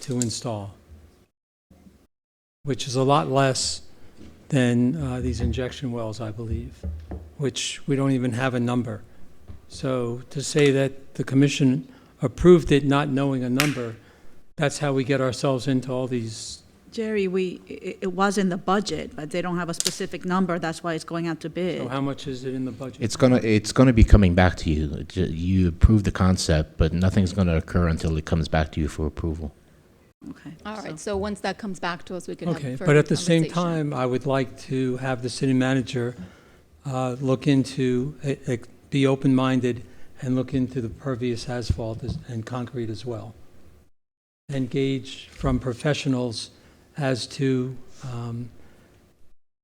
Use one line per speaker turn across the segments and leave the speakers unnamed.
to install, which is a lot less than uh, these injection wells, I believe, which we don't even have a number. So to say that the commission approved it not knowing a number, that's how we get ourselves into all these,
Jerry, we, it, it was in the budget, but they don't have a specific number, that's why it's going out to
so
bid.
how much is it in the budget?
It's gonna it's gonna be coming back to you. J- You approve the concept, but nothing's gonna occur until it comes back to you for approval.
Okay.
All
so-
right, so once that comes back to us, we can have
Okay,
further
but at the same
conversation.
time, I would like to have the city manager uh, look into, eh, eh, be open-minded and look into the pervious asphalt as- and concrete as well. And gauge from professionals as to um,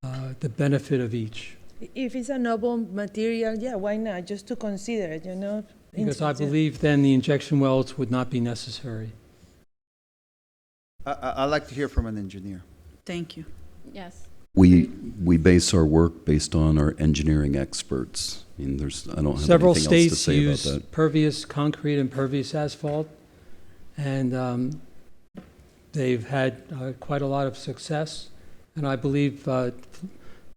uh, the benefit of each.
If it's a noble material, yeah, why not? Just to consider it, you know?
Because I
Into-
believe then the injection wells would not be necessary.
I, I- I'd like to hear from an engineer.
Thank you.
Yes.
We, we base our work based on our engineering experts. I mean, there's, I don't have anything
Several
else to
states
say about
use
that.
pervious concrete and pervious asphalt, and um, they've had uh, quite a lot of success. And I believe uh,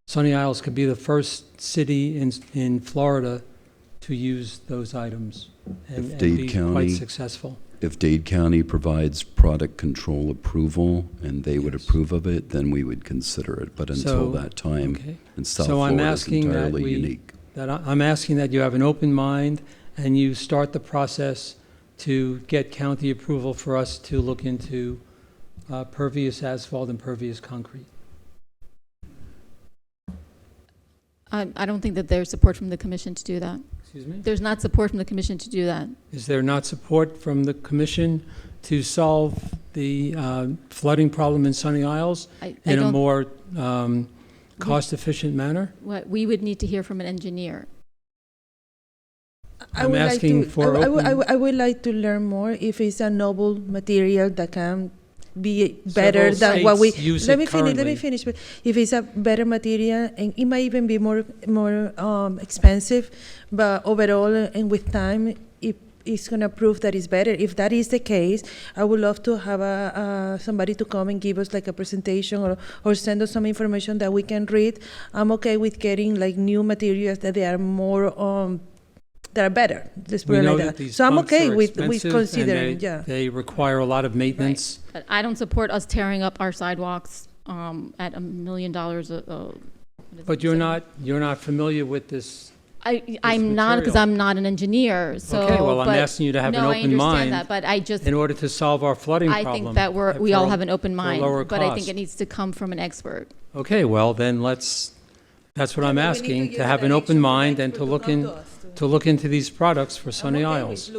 Sunny Isles could be the first city in, in Florida to use those items and
If
and
Dade
be quite
County-
successful.
If Dade County provides product control approval and they would
Yes.
approve of it, then we would consider it. But
So,
until that time,
Okay?
and South
so I'm
Florida is
asking that
entirely
we-
unique.
that I- I'm asking that you have an open mind and you start the process to get county approval for us to look into uh, pervious asphalt and pervious concrete.
I, I don't think that there's support from the commission to do that.
Excuse me?
There's not support from the commission to do that.
Is there not support from the commission to solve the uh, flooding problem in Sunny Isles
I, I
in a
don't,
more um, cost-efficient manner?
what, we would need to hear from an engineer.
I
I'm
would like
asking
to-
for
I- I would- I
open-
would- I would like to learn more if it's a noble material that can be better
Several
than what we.
states use
Let
it
me finish, let me
currently.
finish. but If it's a better material, and it might even be more, more um, expensive, but overall, uh, and with time, it, it's gonna prove that it's better. If that is the case, I would love to have a, uh, somebody to come and give us like a presentation or, or send us some information that we can read. I'm okay with getting like new materials that they are more, um, that are better, let's put
We
it
know
like
that
that.
these
So I'm
pumps
okay
are
with, with
expensive and
considering,
they-
yeah.
They require a lot of maintenance.
But I don't support us tearing up our sidewalks um, at a million dollars a. a- what is
But
it,
you're
so-
not, you're not familiar with this
I, I'm not because
material.
I'm not an engineer. So,
Okay, well, I'm
but-
asking you to have an
no, I
open
understand
mind
that, but I just
in order to solve our flooding
I
problem.
think that we're,
at-
we all
for-
have an open mind,
lower
but I think
cost.
it needs to come from an expert.
Okay, well, then let's, that's what I'm asking, to have an open mind and to look in, to look into these products for Sunny Isles.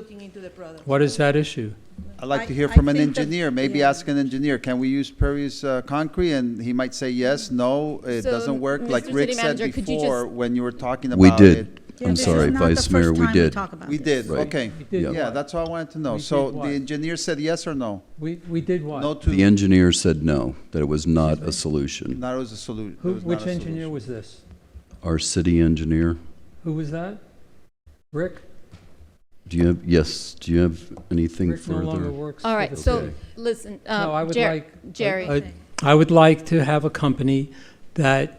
What is that issue?
I'd like to
I-
hear
I
from an
think that-
engineer, maybe
yeah.
ask an engineer, can we use pervious uh, concrete? And he might say yes, no, it
So,
doesn't work,
Mr.
like
City
Rick said
Manager, could you
before,
just-
when you were talking
We
about it.
did. I'm sorry, Vice Mayor, we did.
We did,
Right.
okay.
did
Yeah.
Yeah, that's what I wanted to know.
We
So
did
the
what?
engineer said yes or no?
We, we did what?
No
The
to,
engineer said no, that it was not a solution.
not as a solution.
Who, which engineer was this?
Our city engineer,
Who was that? Rick?
do you have, yes, do you have anything
Rick no longer
further?
works.
All
for
right,
the
so
city.
Okay.
listen,
No, I
uh,
would
Jer-
like-
Jerry,
Uh,
I- I would like to have a company that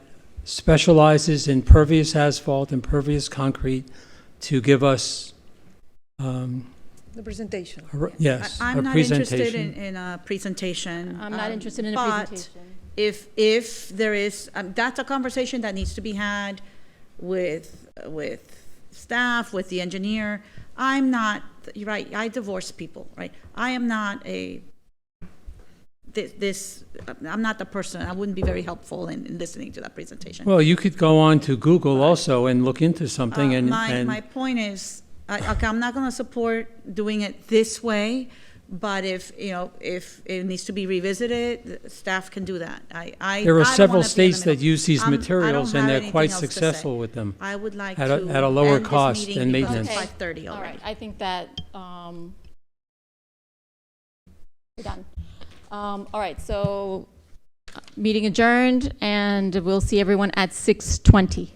specializes in pervious asphalt and pervious concrete to give us, um,
The presentation.
a re- yes,
I-
a
I'm not interested
presentation.
in, in a presentation.
I'm not
uh,
um,
interested in a
but
presentation.
if, if there is, um, that's a conversation that needs to be had with, with staff, with the engineer. I'm not, you're right, I divorce people, right? I am not a, thi- this, I'm not the person, I wouldn't be very helpful in in listening to that presentation.
Well, you could go on to Google also and look into something
Uh,
and,
My, my
and,
point is, I, okay, I'm not gonna support doing it this way, but if, you know, if it needs to be revisited, the staff can do that. I, I.
there
I
are
don't
several
wanna be in the
states that
middle.
use these
I'm- I don't
materials
have
and they're
anything
quite
else to say.
successful with them.
I would like to.
at a- at a lower
end this
cost
meeting
and
because
maintenance.
It's five thirty
all right,
already.
I think that, um, we're done. Um, all right, so, uh, meeting adjourned, and we'll see everyone at 6:20.